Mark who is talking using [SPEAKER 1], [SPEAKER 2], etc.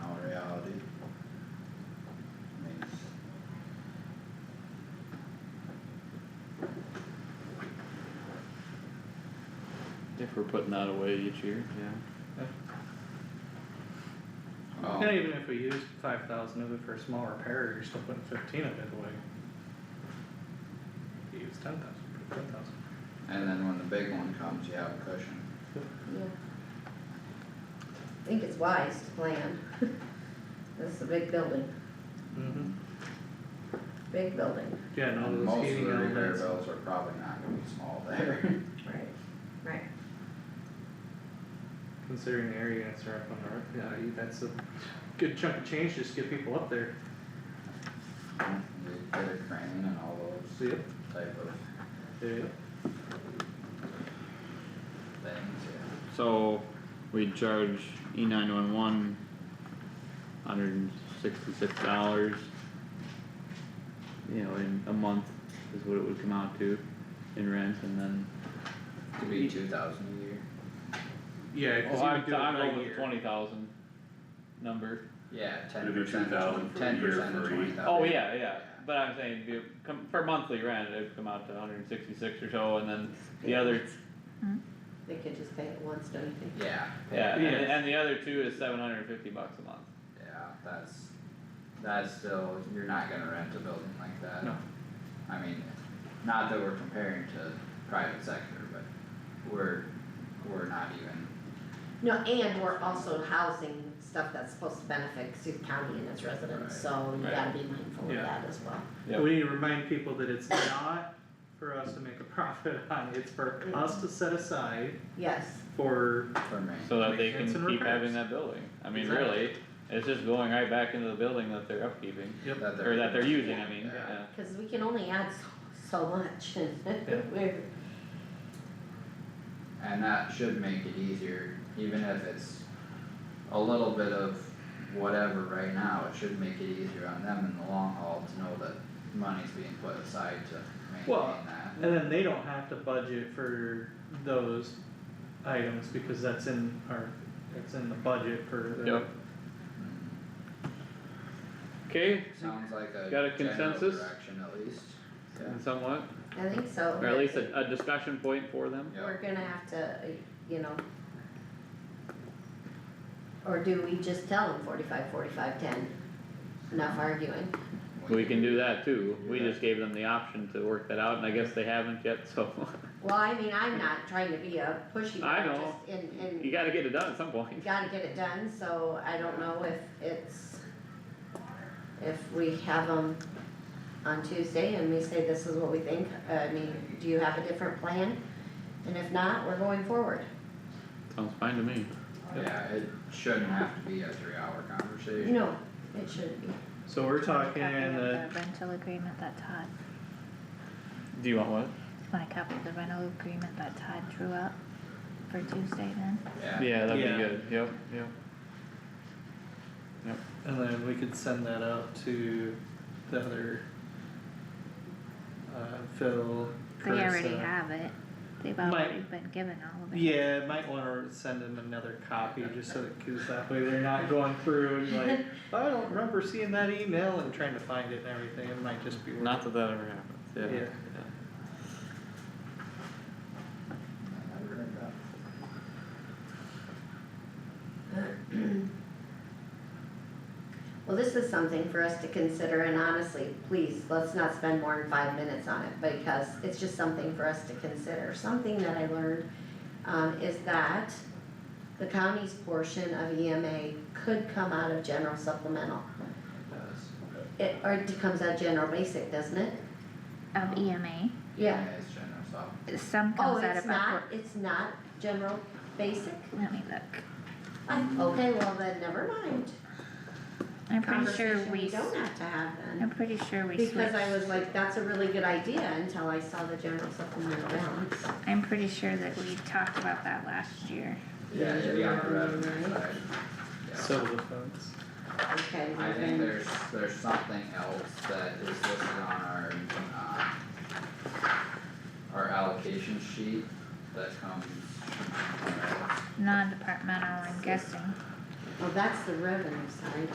[SPEAKER 1] if we're putting that away each year.
[SPEAKER 2] yeah. Um,
[SPEAKER 3] And even if we used five thousand of it for a small repair, you're still putting fifteen of it away. You use ten thousand, put ten thousand.
[SPEAKER 2] and then when the big one comes, you have a cushion.
[SPEAKER 4] Yeah. I think it's wise to plan. This is a big building,
[SPEAKER 3] Mm-hmm.
[SPEAKER 4] big building.
[SPEAKER 3] Yeah,
[SPEAKER 2] And
[SPEAKER 3] no, those
[SPEAKER 2] most of the
[SPEAKER 3] heating
[SPEAKER 2] repair
[SPEAKER 3] elements,
[SPEAKER 2] bills are probably not gonna be small there.
[SPEAKER 4] Right. Right.
[SPEAKER 3] considering the area units are up on the roof, yeah, you- that's a good chunk of change just to get people up there.
[SPEAKER 2] You Get a crane and all
[SPEAKER 3] So,
[SPEAKER 2] those
[SPEAKER 3] yep,
[SPEAKER 2] type of
[SPEAKER 3] there you go.
[SPEAKER 2] things, yeah.
[SPEAKER 1] So we charge E nine one one hundred and sixty-six dollars. You know, in a month is what it would come out to in rent and then.
[SPEAKER 2] Could be two thousand a year.
[SPEAKER 3] Yeah, cause you
[SPEAKER 1] Oh, I,
[SPEAKER 3] would do it
[SPEAKER 1] I
[SPEAKER 3] by
[SPEAKER 1] rolled the
[SPEAKER 3] year.
[SPEAKER 1] twenty thousand number.
[SPEAKER 2] Yeah, ten
[SPEAKER 5] It'd be
[SPEAKER 2] percent,
[SPEAKER 5] 2,000 for a
[SPEAKER 2] ten
[SPEAKER 5] year
[SPEAKER 2] percent of
[SPEAKER 5] for each.
[SPEAKER 2] twenty thousand.
[SPEAKER 1] Oh, yeah, yeah, but I'm saying, if you come, for monthly rent, it'd come out to hundred and sixty-six or so and then the other,
[SPEAKER 4] They could just pay it once, don't you think?
[SPEAKER 2] Yeah.
[SPEAKER 1] yeah, and,
[SPEAKER 3] Yeah.
[SPEAKER 1] and the other two is seven hundred and fifty bucks a month.
[SPEAKER 2] Yeah, that's, that's still, you're not gonna rent a building like that.
[SPEAKER 3] No.
[SPEAKER 2] I mean, not that we're comparing to private sector, but we're, we're not even,
[SPEAKER 4] No, and we're also housing stuff that's supposed to benefit Sioux County and its residents, so you
[SPEAKER 1] Right.
[SPEAKER 4] gotta be mindful of
[SPEAKER 3] Yeah.
[SPEAKER 4] that as well.
[SPEAKER 1] Yeah.
[SPEAKER 3] We need to remind people that it's not for us to make a profit on, it's for us to set aside
[SPEAKER 4] Yes,
[SPEAKER 3] for
[SPEAKER 2] for me,
[SPEAKER 1] So that they can
[SPEAKER 3] Maintenance and
[SPEAKER 1] keep having
[SPEAKER 3] repairs.
[SPEAKER 1] that building, I mean,
[SPEAKER 3] Exactly.
[SPEAKER 1] really, it's just going right back into the building that they're upkeeping.
[SPEAKER 2] that they're.
[SPEAKER 1] Or that they're using, I mean,
[SPEAKER 2] Yeah.
[SPEAKER 1] yeah,
[SPEAKER 4] cause we can only add so, so much and we're,
[SPEAKER 2] And that should make it easier, even if it's a little bit of whatever right now, it should make it easier on them in the long haul to know that money's being put aside to
[SPEAKER 3] Well,
[SPEAKER 2] maintain that.
[SPEAKER 3] And then they don't have to budget for those items because that's in our, that's in the budget for the.
[SPEAKER 1] Yep.
[SPEAKER 2] Mm.
[SPEAKER 1] okay,
[SPEAKER 2] Sounds like a
[SPEAKER 1] Got a
[SPEAKER 2] general
[SPEAKER 1] consensus?
[SPEAKER 2] direction at least, yeah.
[SPEAKER 1] somewhat,
[SPEAKER 4] I think so.
[SPEAKER 1] or at least a, a discussion point for them.
[SPEAKER 2] Yeah.
[SPEAKER 4] We're gonna have to, uh, you know. Or do we just tell them forty-five, forty-five, ten? Enough arguing.
[SPEAKER 1] We can do that too, we just gave them the option to work that out, and I guess they haven't yet, so,
[SPEAKER 4] Well, I mean, I'm not trying to be a pushy,
[SPEAKER 1] I
[SPEAKER 4] I
[SPEAKER 1] know.
[SPEAKER 4] just, and, and
[SPEAKER 1] you gotta get it done at some point.
[SPEAKER 4] gotta get it done, so I don't know if it's. If we have them on Tuesday and we say this is what we think, uh, I mean, do you have a different plan? And if not, we're going forward.
[SPEAKER 1] Sounds fine to me.
[SPEAKER 2] Yeah, it shouldn't have to be a three hour conversation.
[SPEAKER 4] No, it shouldn't be.
[SPEAKER 3] So we're talking
[SPEAKER 6] Copy of
[SPEAKER 3] in
[SPEAKER 6] the
[SPEAKER 3] the,
[SPEAKER 6] rental agreement that Todd,
[SPEAKER 1] Do you want what?
[SPEAKER 6] want a copy of the rental agreement that Todd drew up for Tuesday then?
[SPEAKER 2] Yeah,
[SPEAKER 1] Yeah, that'd
[SPEAKER 3] Yeah.
[SPEAKER 1] be good, yep, yep.
[SPEAKER 3] and then we could send that out to the other. Uh, Phil,
[SPEAKER 6] They already
[SPEAKER 3] Carissa.
[SPEAKER 6] have it, they've
[SPEAKER 3] Might-
[SPEAKER 6] already been given all of it.
[SPEAKER 3] uh, Yeah, might wanna send them another copy just so, that- cause that way they're not going through and like, I don't remember seeing that email and trying to find it and everything, it might just be. worth
[SPEAKER 1] Not that that ever happens, yeah.
[SPEAKER 3] Yeah.
[SPEAKER 2] I've heard that.
[SPEAKER 4] Well, this is something for us to consider and honestly, please, let's not spend more than five minutes on it because it's just something for us to consider. Something that I learned um, is that the county's portion of EMA could come out of general supplemental.
[SPEAKER 2] It does.
[SPEAKER 4] It, or it comes out of general basic, doesn't it?
[SPEAKER 6] Of EMA,
[SPEAKER 4] Yeah.
[SPEAKER 2] It's general soft.
[SPEAKER 6] some
[SPEAKER 4] Oh,
[SPEAKER 6] comes out
[SPEAKER 4] it's
[SPEAKER 6] of
[SPEAKER 4] not,
[SPEAKER 6] our,
[SPEAKER 4] it's not general basic?
[SPEAKER 6] let me look,
[SPEAKER 4] I- Okay, well then, never mind.
[SPEAKER 6] I'm pretty sure
[SPEAKER 4] Conversation
[SPEAKER 6] we,
[SPEAKER 4] don't
[SPEAKER 6] s-
[SPEAKER 4] have to have then.
[SPEAKER 6] I'm pretty sure we switched.
[SPEAKER 4] Because I was like, that's a really good idea until I saw the general supplemental balance.
[SPEAKER 6] I'm pretty sure that we talked about that last year,
[SPEAKER 2] Yeah, it'd be on the revenue
[SPEAKER 4] Right.
[SPEAKER 2] side. Yeah.
[SPEAKER 3] So the funds.
[SPEAKER 4] Okay,
[SPEAKER 2] I
[SPEAKER 4] well
[SPEAKER 2] think
[SPEAKER 4] then,
[SPEAKER 2] there's, there's something else that is listed on our, uh, our allocation sheet that comes. from somewhere else.
[SPEAKER 6] non-departmental, I'm guessing.
[SPEAKER 4] well, that's the revenue side.